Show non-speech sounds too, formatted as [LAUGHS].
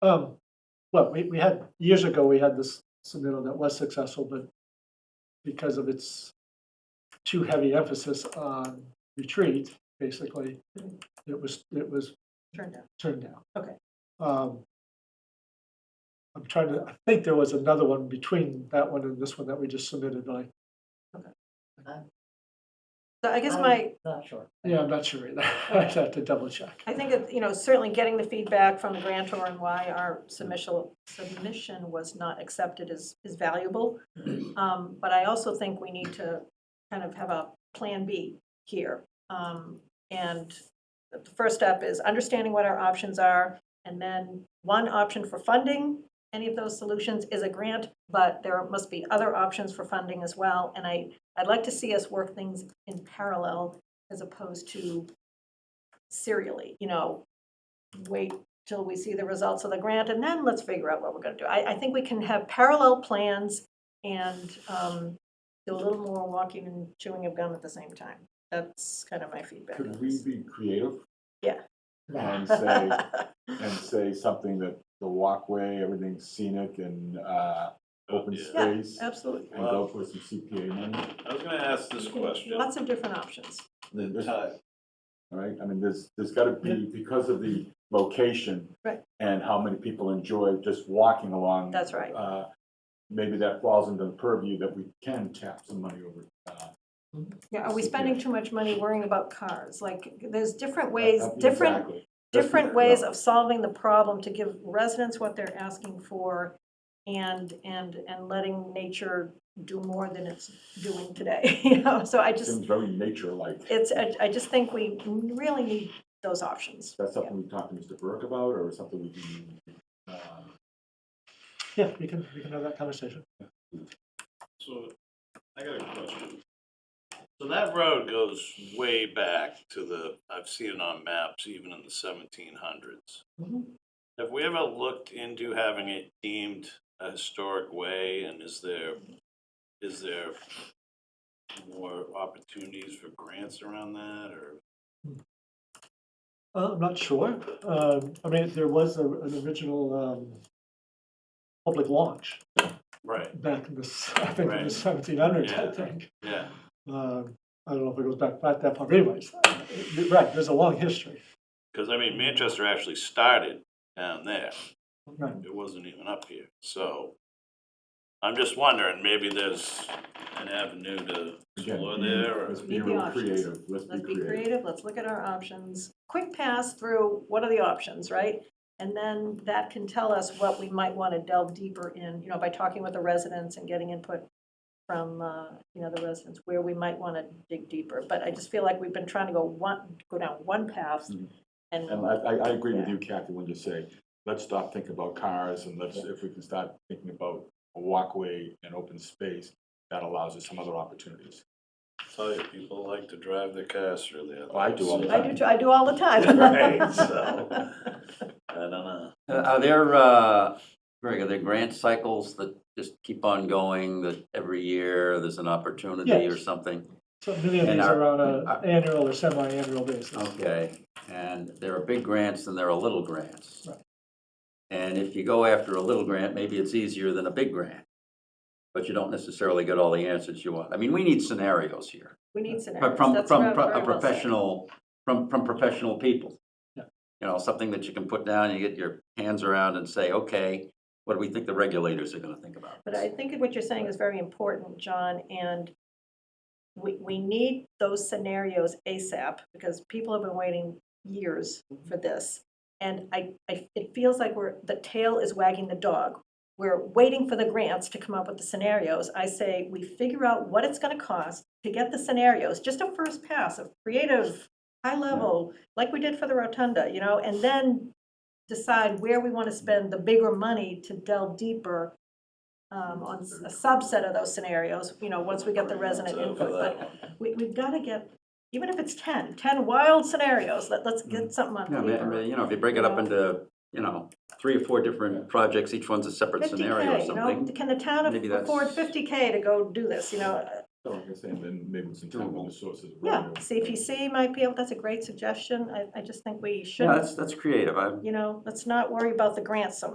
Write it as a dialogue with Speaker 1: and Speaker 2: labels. Speaker 1: Um, well, we, we had, years ago, we had this submittal that was successful, but because of its too heavy emphasis on retreat, basically, it was, it was
Speaker 2: turned out.
Speaker 1: turned down.
Speaker 2: Okay.
Speaker 1: Um, I'm trying to, I think there was another one between that one and this one that we just submitted, but I,
Speaker 2: So I guess
Speaker 3: I'm
Speaker 2: my,
Speaker 3: Not sure.
Speaker 1: yeah, I'm not sure either. [LAUGHS] I'd have to double check.
Speaker 2: I think, it- you know, certainly getting the feedback from the grantor and why our submission, submission was not accepted is, is valuable. Um, But I also think we need to kind of have a plan B here. Um, And the first step is understanding what our options are. And then one option for funding any of those solutions is a grant, but there must be other options for funding as well. And I, I'd like to see us work things in parallel as opposed to serially, you know, wait till we see the results of the grant and then let's figure out what we're gonna do. I, I think we can have parallel plans and um, do a little more walking and chewing of gum at the same time. That's kind of my feedback. on
Speaker 4: Could
Speaker 2: [LAUGHS]
Speaker 4: we
Speaker 2: this.
Speaker 4: be creative
Speaker 2: Yeah.
Speaker 4: and say, and say something that the walkway, everything's scenic and, uh, open
Speaker 5: Yeah.
Speaker 2: Yeah,
Speaker 4: space? And
Speaker 2: Absolutely.
Speaker 4: go for some CPA money,
Speaker 5: I was gonna ask this question,
Speaker 2: Lots of different options.
Speaker 5: the time,
Speaker 4: all right? I mean, there's, there's gotta be, because of the location.
Speaker 2: Right.
Speaker 4: And how many people enjoy just walking along.
Speaker 2: That's right.
Speaker 4: Uh, maybe that falls into the purview that we can tap some money over, uh,
Speaker 2: Yeah, are we
Speaker 4: Yeah.
Speaker 2: spending too much money worrying about cars? Like, there's different ways,
Speaker 4: uh,
Speaker 2: different,
Speaker 4: exactly. Just
Speaker 2: different
Speaker 4: be-
Speaker 2: ways of solving the problem to give residents what they're asking for and, and, and letting nature do more than it's doing today, [LAUGHS] you know? So I just,
Speaker 4: Seems very nature-like.
Speaker 2: it's, I, I just think we really need those options.
Speaker 4: That's something we talked to Mr. Burke about, or something we can, uh,
Speaker 1: Yeah, we can, we can have that conversation.
Speaker 5: so I got a question. So that road goes way back to the, I've seen it on maps even in the seventeen hundreds.
Speaker 2: Mhm.
Speaker 5: Have we ever looked into having it deemed a historic way and is there, is there more opportunities for grants around that or?
Speaker 1: Uh, I'm not sure. Um, I mean, there was a- an original um, public launch
Speaker 5: Right,
Speaker 1: back in the, s- [LAUGHS] I think in the
Speaker 5: Right.
Speaker 1: seventeen hundreds, I
Speaker 5: Yeah.
Speaker 1: think.
Speaker 5: yeah,
Speaker 1: Um, I don't know if it goes back, back that far, but anyways, uh, you're right, there's a long history.
Speaker 5: because I mean Manchester actually started down there.
Speaker 1: Right.
Speaker 5: it wasn't even up here, so. I'm just wondering, maybe there's an avenue to
Speaker 4: again,
Speaker 5: explore
Speaker 4: be-
Speaker 5: there, or,
Speaker 4: let's be
Speaker 2: Need the
Speaker 4: real
Speaker 2: options.
Speaker 4: creative, let's be
Speaker 2: Let's be
Speaker 4: creative.
Speaker 2: creative, let's look at our options. Quick pass through, what are the options, right? And then that can tell us what we might want to delve deeper in, you know, by talking with the residents and getting input from, uh, you know, the residents, where we might want to dig deeper. But I just feel like we've been trying to go one, go down one path
Speaker 6: Mm-hmm.
Speaker 4: Mhm.
Speaker 2: and,
Speaker 4: And I, I, I agree with you, Kathy, when you say, let's stop thinking about cars and let's, if we can start thinking about a walkway and open space, that allows us some other opportunities.
Speaker 5: tell you, people like to drive their cars through there.
Speaker 4: Oh, I do all the
Speaker 2: I do, too- I do all the
Speaker 6: [LAUGHS]
Speaker 2: time.
Speaker 5: [LAUGHS] Right,
Speaker 2: [LAUGHS]
Speaker 5: so, I don't know,
Speaker 6: Uh, Are there, uh, Greg, are there grant cycles that just keep on going, that every year there's an opportunity or
Speaker 1: Yes.
Speaker 6: something?
Speaker 1: So many of
Speaker 6: And
Speaker 1: these
Speaker 6: our-
Speaker 1: are on an
Speaker 6: our-
Speaker 1: annual or semi-annual basis.
Speaker 6: Okay, and there are big grants and there are little grants.
Speaker 1: Right.
Speaker 6: And if you go after a little grant, maybe it's easier than a big grant, but you don't necessarily get all the answers you want. I mean, we need scenarios here.
Speaker 2: We need
Speaker 6: But
Speaker 2: scenarios.
Speaker 6: From,
Speaker 2: That's
Speaker 6: from
Speaker 2: very-
Speaker 6: pro- a
Speaker 2: very well said.
Speaker 6: professional, from, from professional people.
Speaker 1: Yeah.
Speaker 6: You know, something that you can put down, you get your hands around and say, okay, what do we think the regulators are gonna think about?
Speaker 2: But
Speaker 6: this?"
Speaker 2: I think what you're saying is very important, John, and we, we need those scenarios ASAP, because people have been waiting years for this. And I, I, it feels like we're, the tail is wagging the dog. We're waiting for the grants to come up with the scenarios. I say, we figure out what it's gonna cost to get the scenarios, just a first pass of creative, high level, like we did for the rotunda, you know, and then decide where we wanna spend the bigger money to delve deeper um, on s- a subset of those scenarios, you know, once we get the resident
Speaker 5: so
Speaker 2: input.
Speaker 5: for
Speaker 2: But
Speaker 5: that one.
Speaker 2: we, we've got to get, even if it's 10, 10 wild scenarios, let, let's
Speaker 5: Mm.
Speaker 2: get something on
Speaker 6: Yeah, I mean- I mean,
Speaker 2: paper.
Speaker 6: you know, if you break it up
Speaker 2: Yeah.
Speaker 6: into, you know, three or four different projects, each one's a separate scenario or
Speaker 2: 50K, you know,
Speaker 6: something.
Speaker 2: can the town
Speaker 6: Maybe
Speaker 2: af-
Speaker 6: that's-
Speaker 2: afford 50K to go do this, you know?
Speaker 4: So like I say, and then maybe some time with the sources. of
Speaker 2: Yeah,
Speaker 4: revenue.
Speaker 2: CPC might be able, that's a great suggestion. I, I just think we
Speaker 6: Yeah,
Speaker 2: should,
Speaker 6: that's, that's creative. I'm,
Speaker 2: you know, let's not worry about the grants so